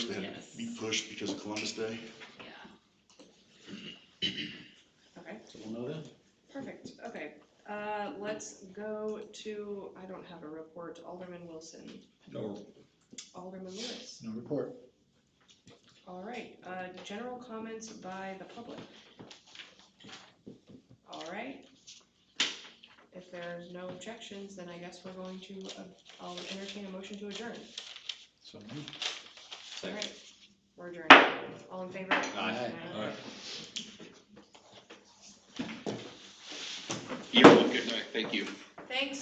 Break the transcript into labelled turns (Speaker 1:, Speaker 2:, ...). Speaker 1: be pushed because of Columbus Day.
Speaker 2: Yeah. Okay,
Speaker 3: So we'll know then.
Speaker 2: perfect, okay. Uh, let's go to, I don't have a report, Alderman Wilson,
Speaker 3: No,
Speaker 2: Alderman Lewis.
Speaker 3: no report.
Speaker 2: All right, uh, general comments by the public. All right. If there's no objections, then I guess we're going to, uh, I'll entertain a motion to adjourn.
Speaker 3: So moved.
Speaker 2: All right, we're adjourned. All in favor?
Speaker 3: All right.
Speaker 4: You're welcome, thank you.